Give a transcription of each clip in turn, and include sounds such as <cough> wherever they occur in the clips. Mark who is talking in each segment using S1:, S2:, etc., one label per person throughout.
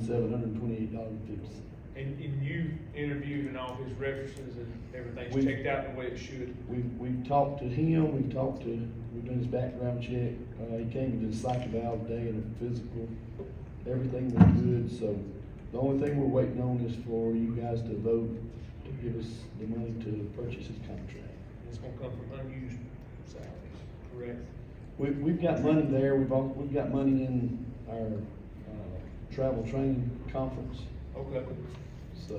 S1: seven hundred and twenty-eight dollars and fifty cents.
S2: And, and you interviewed and all his references and everything's
S1: We-
S2: checked out the way it should.
S1: We've, we've talked to him, we've talked to, we've done his background check, uh, he came and did a psych eval today and a physical. Everything was good, so the only thing we're waiting on is for you guys to vote to give us the money to purchase his contract.
S2: It's gonna come from unused salaries, correct?
S1: We've, we've got money there, we've all, we've got money in our, uh, travel training conference,
S2: Okay.
S1: so.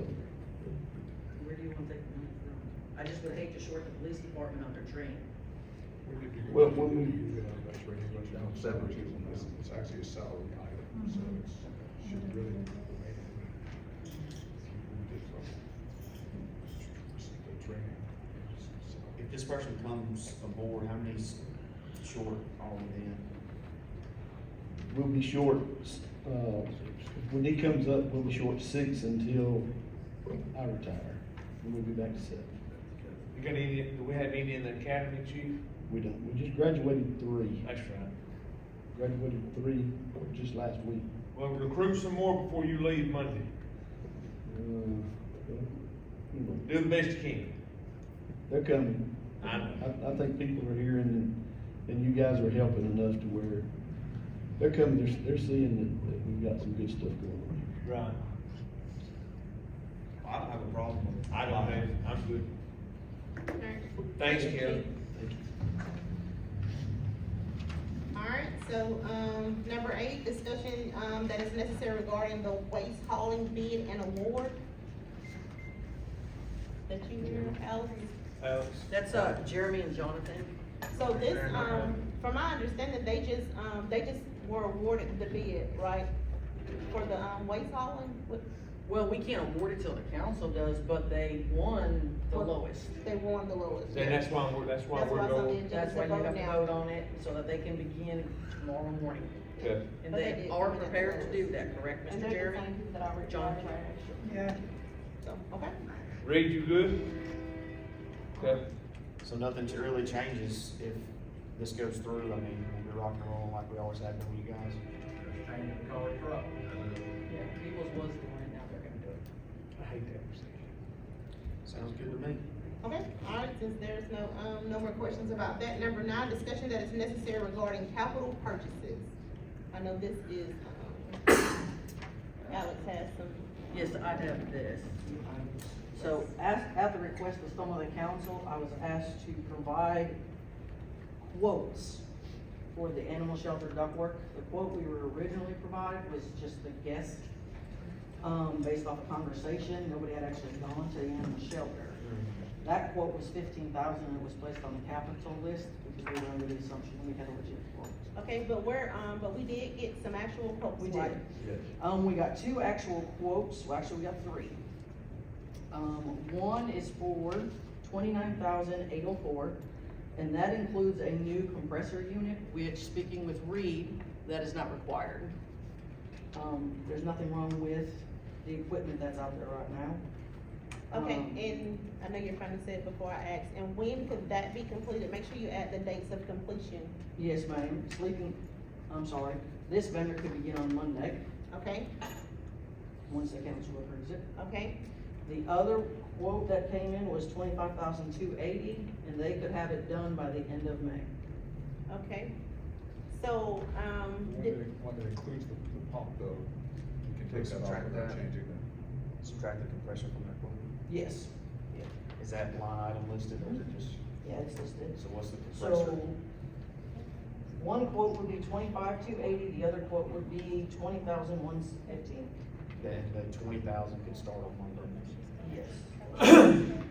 S3: Where do you want to take the money from? I just would hate to short the police department on their training.
S1: Well, when
S4: uh,
S1: we-
S4: Severance is, it's actually a salary item, so it's, should really. The training.
S5: If this person comes aboard, how many's short are we then?
S1: We'll be short, uh, when he comes up, we'll be short six until I retire, and we'll be back to seven.
S2: You got any, do we have any in the academy, chief?
S1: We don't, we just graduated three,
S2: That's right.
S1: graduated three just last week.
S2: Well, recruit some more before you leave Monday.
S1: Uh, anyway,
S2: Do the best you can.
S1: They're coming.
S2: I know.
S1: I, I think people are here and, and you guys are helping enough to where they're coming, they're, they're seeing that, that we've got some good stuff going on here.
S2: Right.
S5: I don't have a problem with.
S2: I don't have, I'm good. Thanks, Kevin.
S6: Alright, so, um, number eight, discussion, um, that is necessary regarding the waste hauling bid and award. That you hear, Alex?
S2: Alex?
S3: That's, uh, Jeremy and Jonathan.
S6: So this, um, from my understanding, they just, um, they just were awarded the bid, right? For the, um, waste hauling, what,
S3: Well, we can't award it till the council does, but they won the
S6: Well-
S3: lowest.
S6: they won the lowest.
S2: And that's why we're, that's why
S6: That's
S2: we're
S6: why
S2: going.
S6: something-
S7: That's why you have to vote on it, so that they can begin tomorrow morning.
S2: Okay.
S7: And
S6: But they
S7: they
S6: did.
S7: are prepared to do that, correct,
S6: And
S7: Mr.
S6: they're the
S7: Jeremy?
S6: same people that I already.
S7: Jonathan.
S8: Yeah.
S6: So, okay.
S2: Reed, you good? Okay.
S5: So nothing t- really changes if this goes through, I mean, we'll be rock and rolling like we always have been with you guys.
S7: Yeah, Peoples was doing it, now they're gonna do it.
S2: I hate that procedure.
S5: Sounds good to me.
S6: Okay, alright, since there's no, um, no more questions about that, number nine, discussion that is necessary regarding capital purchases. I know this is, um, <coughs> Alex has some,
S7: Yes, I have this. So as, at the request of some of the council, I was asked to provide quotes for the animal shelter ductwork. The quote we were originally provided was just a guess, um, based off a conversation, nobody had actually gone to the animal shelter. That quote was fifteen thousand, and it was placed on the capital list, because we were under the assumption we had a legit quote.
S6: okay, but we're, um, but we did get some actual quotes,
S7: We
S6: right?
S7: did. Um, we got two actual quotes, well, actually, we got three. Um, one is for twenty-nine thousand eight oh four, and that includes a new compressor unit, which, speaking with Reed, that is not required. Um, there's nothing wrong with the equipment that's out there right now.
S6: Okay,
S7: Um,
S6: and I know you're trying to say it before I ask, and when could that be completed? Make sure you add the dates of completion,
S7: Yes, ma'am, sleeping, I'm sorry, this vendor could begin on Monday,
S6: okay?
S7: once the council approves it.
S6: Okay,
S7: The other quote that came in was twenty-five thousand two eighty, and they could have it done by the end of May.
S6: okay. So, um,
S4: One that,
S6: did-
S4: one that includes the, the pump though, you can take that off
S5: Subtract
S4: without
S5: that.
S4: changing that.
S5: Subtract the compressor from that quote.
S7: Yes.
S5: Is that line item listed or is it just,
S7: Yeah, it's listed.
S5: so what's the compressor?
S7: So, one quote would be twenty-five two eighty, the other quote would be twenty thousand one fifteen.
S5: That, that twenty thousand could start on Monday.
S7: Yes.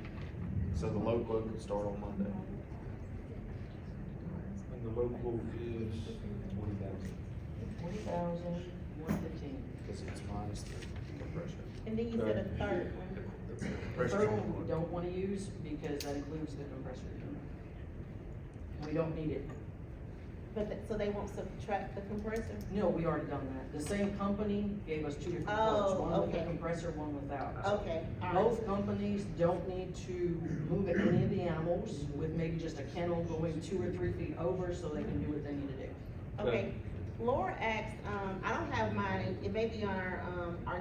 S5: So the low quote could start on Monday.
S2: And the low quote is twenty thousand.
S7: Twenty thousand one fifteen.
S5: Cause it's minus the compressor.
S6: and then you said a third one.
S7: The
S5: Compressor.
S7: third one we don't wanna use because that includes the compressor unit. We don't need it.
S6: But, th- so they won't subtract the compressor?
S7: No, we already done that. The same company gave us two different quotes,
S6: Oh,
S7: one with the
S6: okay.
S7: compressor, one without.
S6: Okay, alright,
S7: Both companies don't need to move any of the animals with maybe just a kennel going two or three feet over so they can do what they need to do.
S6: okay. Laura asked, um, I don't have mine, it may be on our, um, our